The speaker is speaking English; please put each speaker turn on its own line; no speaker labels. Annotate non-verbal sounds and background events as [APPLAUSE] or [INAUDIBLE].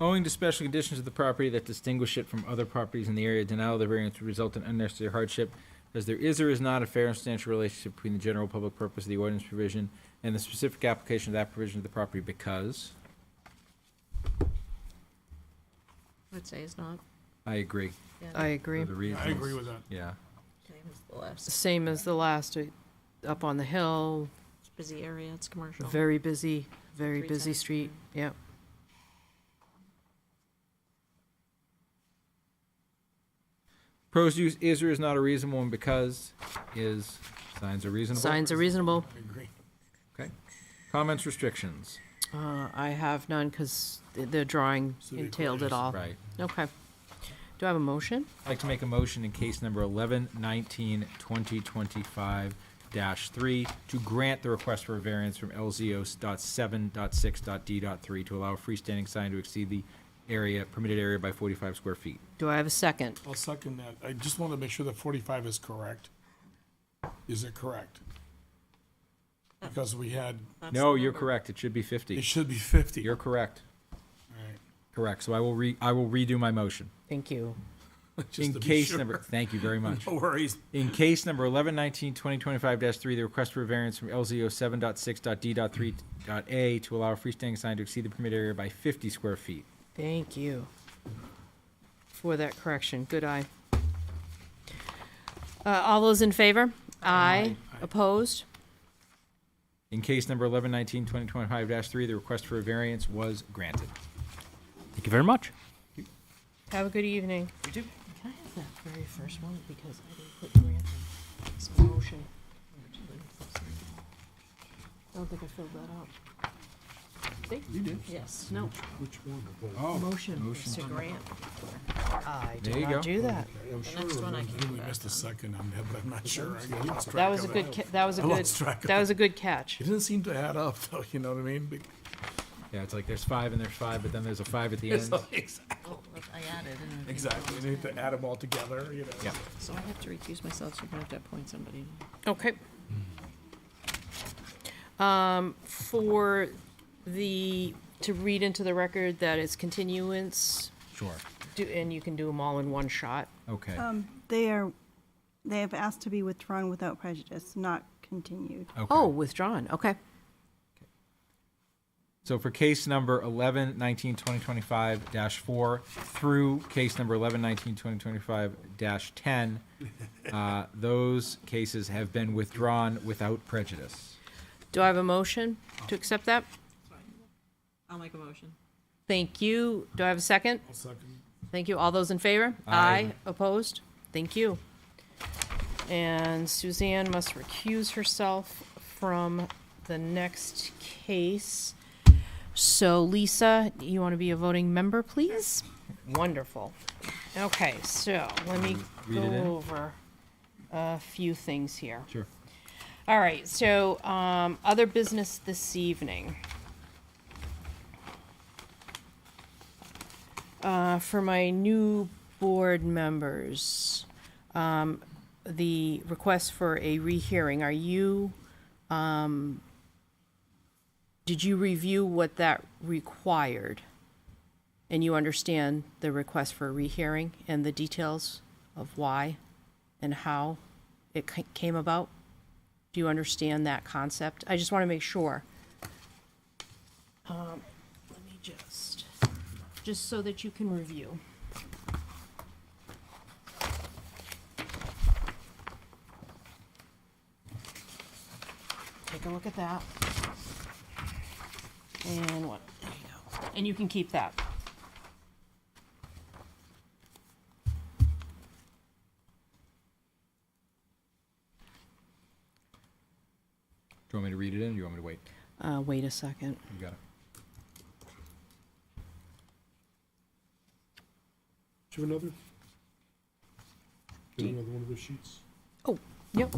Owing to special conditions of the property that distinguish it from other properties in the area, denial of the variance would result in unnecessary hardship as there is or is not a fair and substantial relationship between the general public purpose of the ordinance provision and the specific application of that provision to the property because,
I would say it's not.
I agree.
Yeah,
I
for
agree.
the reasons.
I agree with that.
Yeah.
okay, it was the last.
Same as the last, uh, up on the hill,
It's a busy area, it's commercial.
very busy, very
Three
busy
tenants.
street, yeah.
Pros use is or is not a reasonable one because is, signs are reasonable.
Signs are reasonable.
I agree.
Okay. Comments, restrictions.
Uh, I have none because the drawing
So they
entailed it
closed.
all.
Right.
Okay. Do I have a motion?
I'd like to make a motion in case number 11, 19, 20, 25 dash 3 to grant the request for a variance from LZO dot 7 dot 6 dot D dot 3 to allow a freestanding sign to exceed the area, permitted area by 45 square feet.
Do I have a second?
I'll second that. I just want to make sure that forty-five is correct. Is it correct? Because we had,
That's
No,
the
you're
number.
correct. It should be
it
50.
should be fifty.
You're correct.
Alright.
Correct. So I will re, I will redo my motion.
Thank you.
Just
In
to be
case
sure.
number, thank you very much.
[LAUGHS] No worries.
In case number 11, 19, 20, 25-3, the request for variance from LZO 7.6.d.3.a to allow a freestanding sign to exceed the permitted area by 50 square feet.
Thank you for that correction. Good eye. Uh, all those in favor? Aye. Opposed?
In case number 11, 19, 20, 25-3, the request for a variance was granted.
Thank you very much.
Have a good evening.
You too.
Can I have that very first one because I didn't put Grantham. It's a motion. I don't think I filled that out.
You did?
Yes.
No,
Which one?
Oh.
To
motion
grant.
I
There
did
you go.
not do that.
I'm
The next one I can go
We
back.
missed a second on that, but I'm not sure. I lost track
That was a
of it.
good, ca- that was a
I
good,
lost track of
that
it.
was a good catch.
It didn't seem to add up though, you know what I mean? Be-
Yeah, it's like there's five and there's five, but then there's a five at the
[LAUGHS] It's
end.
like, exact-
Oh, look, I added and.
Exactly. You need to add them all together, you know?
Yeah.
So I have to recuse myself, so you're gonna have to appoint somebody.
Okay. Um, for the, to read into the record that it's continuance,
Sure.
do, and you can do them all in one shot.
Okay,
They are, they have asked to be withdrawn without prejudice, not continued.
Oh,
okay.
withdrawn, okay.
So for case number 11, 19, 20, 25-4 through case number 11, 19, 20, 25-10, uh, those cases have been withdrawn without prejudice.
Do I have a motion to accept that?
I'll make a motion.
Thank you. Do I have a second?
I'll second.
Thank you. All those in favor?
Aye.
Opposed? Thank you. And Suzanne must recuse herself from the next case. So Lisa, you want to be a voting member, please? Wonderful. Okay, so let me
Read
go
it in.
over a few things here.
Sure.
All right, so, um, other business this evening. Uh, for my new board members, um, the request for a rehearing, are you, um, did you review what that required? And you understand the request for a rehearing and the details of why and how it ca- came about? Do you understand that concept? I just want to make sure. Um, let me just, just so that you can review. Take a look at that. And what, there you go. And you can keep that.
Do you want me to read it in, or do you want me to wait?
Uh, wait a second.
You got it.
Do you have another? Do you have another one of those sheets?
Yep.